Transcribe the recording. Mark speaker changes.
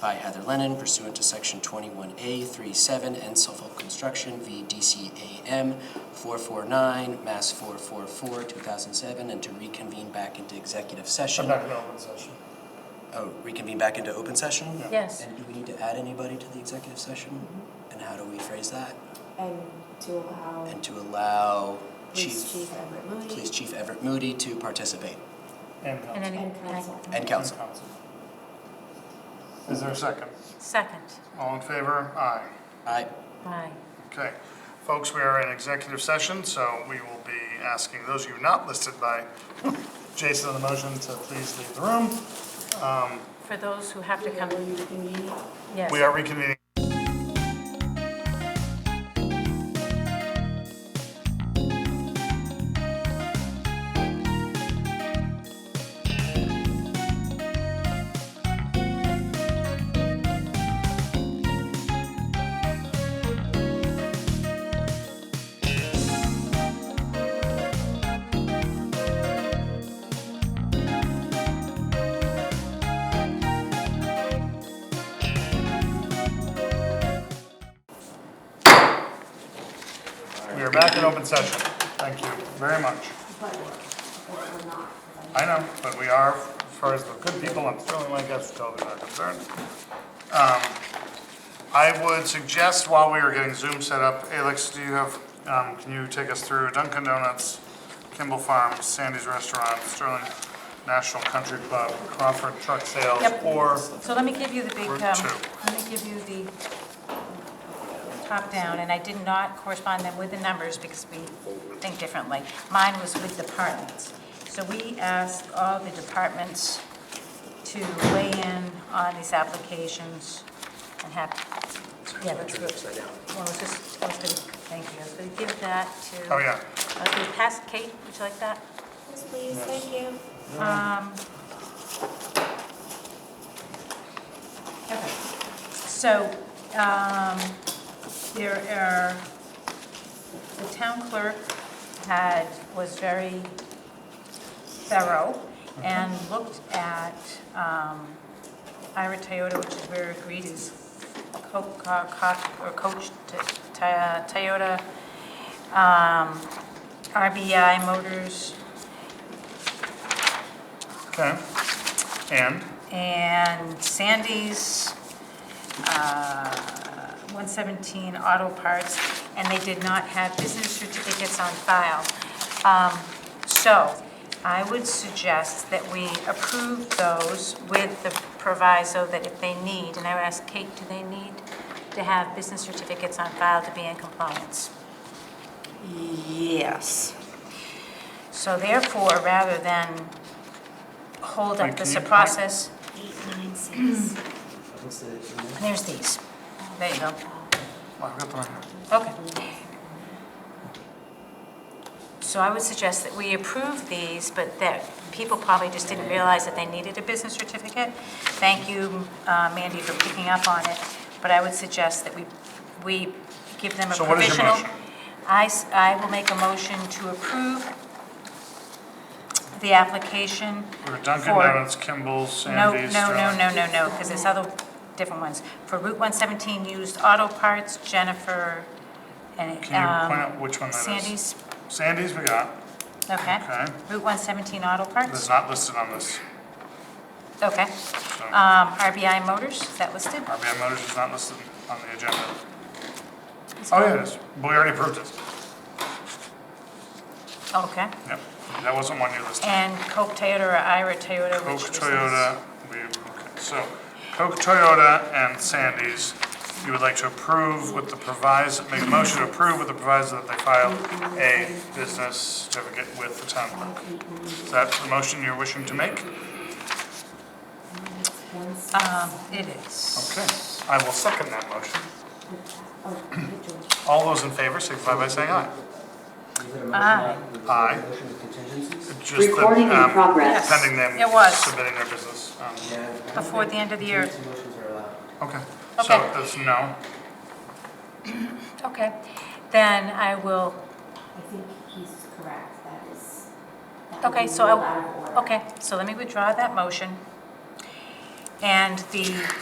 Speaker 1: by Heather Lennon pursuant to Section 21A 37 and Suffolk Construction v. DCAM 449, Mass. 444, 2007, and to reconvene back into executive session.
Speaker 2: I'm not gonna open session.
Speaker 1: Oh, reconvene back into open session?
Speaker 2: Yeah.
Speaker 3: Yes,
Speaker 1: And do we need to add anybody to the executive session? And how do we phrase that?
Speaker 4: And to allow
Speaker 1: And to allow
Speaker 4: Police
Speaker 1: Chief,
Speaker 4: Chief Everett Moody
Speaker 1: Police Chief Everett Moody to participate,
Speaker 2: And
Speaker 3: and
Speaker 2: council.
Speaker 3: any,
Speaker 4: and council.
Speaker 1: and council.
Speaker 2: And council. Is there a second?
Speaker 3: second,
Speaker 2: All in favor? Aye.
Speaker 1: Aye.
Speaker 3: aye.
Speaker 2: Okay. Folks, we are in executive session, so we will be asking those of you not listed by Jason on the motion to please leave the room.
Speaker 3: For those who have to come, yes.
Speaker 2: We are reconvening. We are back in open session. Thank you very much.
Speaker 4: But but we're not.
Speaker 2: I know, but we are, as far as the good people, I'm certainly my guests to television are concerned. Um, I would suggest while we are getting Zoom set up, Alex, do you have, um, can you take us through Dunkin' Donuts, Kimball Farms, Sandy's Restaurant, Sterling National Country Club, Crawford Truck Sales,
Speaker 3: Yep.
Speaker 2: or
Speaker 3: So let me give you the big, um,
Speaker 2: Route two.
Speaker 3: let me give you the top down, and I did not correspond them with the numbers because we think differently. Mine was with departments. So we asked all the departments to weigh in on these applications and have, yeah, that's good. Well, I was just, I was gonna, thank you, I was gonna give that to.
Speaker 2: Oh, yeah.
Speaker 3: I was gonna pass, Kate, would you like that? Um,
Speaker 4: Yes, please, thank you.
Speaker 3: Okay. So, um, there are, the town clerk had, was very thorough and looked at, um, Ira Toyota, which is where Greedy's co- co- co- or coach to- to- Toyota, um, RBI Motors,
Speaker 2: Okay. And,
Speaker 3: and Sandy's, uh, 117 Auto Parts, and they did not have business certificates on file. Um, So I would suggest that we approve those with the proviso that if they need, and I would ask Kate, do they need to have business certificates on file to be in compliance?
Speaker 4: Yes.
Speaker 3: So therefore, rather than hold
Speaker 2: Wait,
Speaker 3: up
Speaker 2: can
Speaker 3: this
Speaker 2: you-
Speaker 3: process,
Speaker 4: Eight nine six.
Speaker 3: there's these. There you go.
Speaker 2: well, I've got the number.
Speaker 3: Okay. So I would suggest that we approve these, but that people probably just didn't realize that they needed a business certificate. Thank you, uh, Mandy, for picking up on it, but I would suggest that we, we give them a
Speaker 2: So what is your
Speaker 3: provisional.
Speaker 2: motion?
Speaker 3: I, s- I will make a motion to approve the application
Speaker 2: We're Dunkin'
Speaker 3: for-
Speaker 2: Donuts, Kimball's,
Speaker 3: no,
Speaker 2: Sandy's,
Speaker 3: no, no,
Speaker 2: Sterling.
Speaker 3: no, no, no, because there's other different ones. For Route 117 used auto parts, Jennifer and
Speaker 2: Can you point
Speaker 3: um,
Speaker 2: out which one that is?
Speaker 3: Sandy's,
Speaker 2: Sandy's we got,
Speaker 3: okay.
Speaker 2: Okay.
Speaker 3: Route 117 auto
Speaker 2: that's
Speaker 3: parts,
Speaker 2: not listed on this,
Speaker 3: okay.
Speaker 2: so.
Speaker 3: Um, RBI Motors, is that listed?
Speaker 2: RBI Motors is not listed on the agenda. Oh, yeah, it is. But we already approved it.
Speaker 3: Okay.
Speaker 2: Yep. That wasn't one you listed.
Speaker 3: And Coke Toyota or Ira Toyota,
Speaker 2: Coke,
Speaker 3: Oh, which was this?
Speaker 2: Toyota, we, okay, so Coke, Toyota, and Sandy's, you would like to approve with the proviso, make a motion to approve with the proviso that they file a business certificate with the town clerk. Is that the motion you're wishing to make?
Speaker 4: One six.
Speaker 3: Um, it is.
Speaker 2: Okay. I will second that motion.
Speaker 4: Oh, good job.
Speaker 2: All those in favor, signify by saying aye.
Speaker 3: Aye.
Speaker 2: Aye.
Speaker 1: Motion with contingencies?
Speaker 2: Just the,
Speaker 5: Recording in
Speaker 2: um,
Speaker 5: progress.
Speaker 2: Pending them
Speaker 3: It was.
Speaker 2: submitting their business. um,
Speaker 3: Before the end of the year.
Speaker 1: Motions are allowed.
Speaker 2: Okay, so
Speaker 3: Okay.
Speaker 2: that's no.
Speaker 3: Okay. Then I will,
Speaker 4: I think he's correct, that is. that would
Speaker 3: okay,
Speaker 4: be
Speaker 3: so
Speaker 4: out of order.
Speaker 3: I, okay, so let me withdraw that motion. And the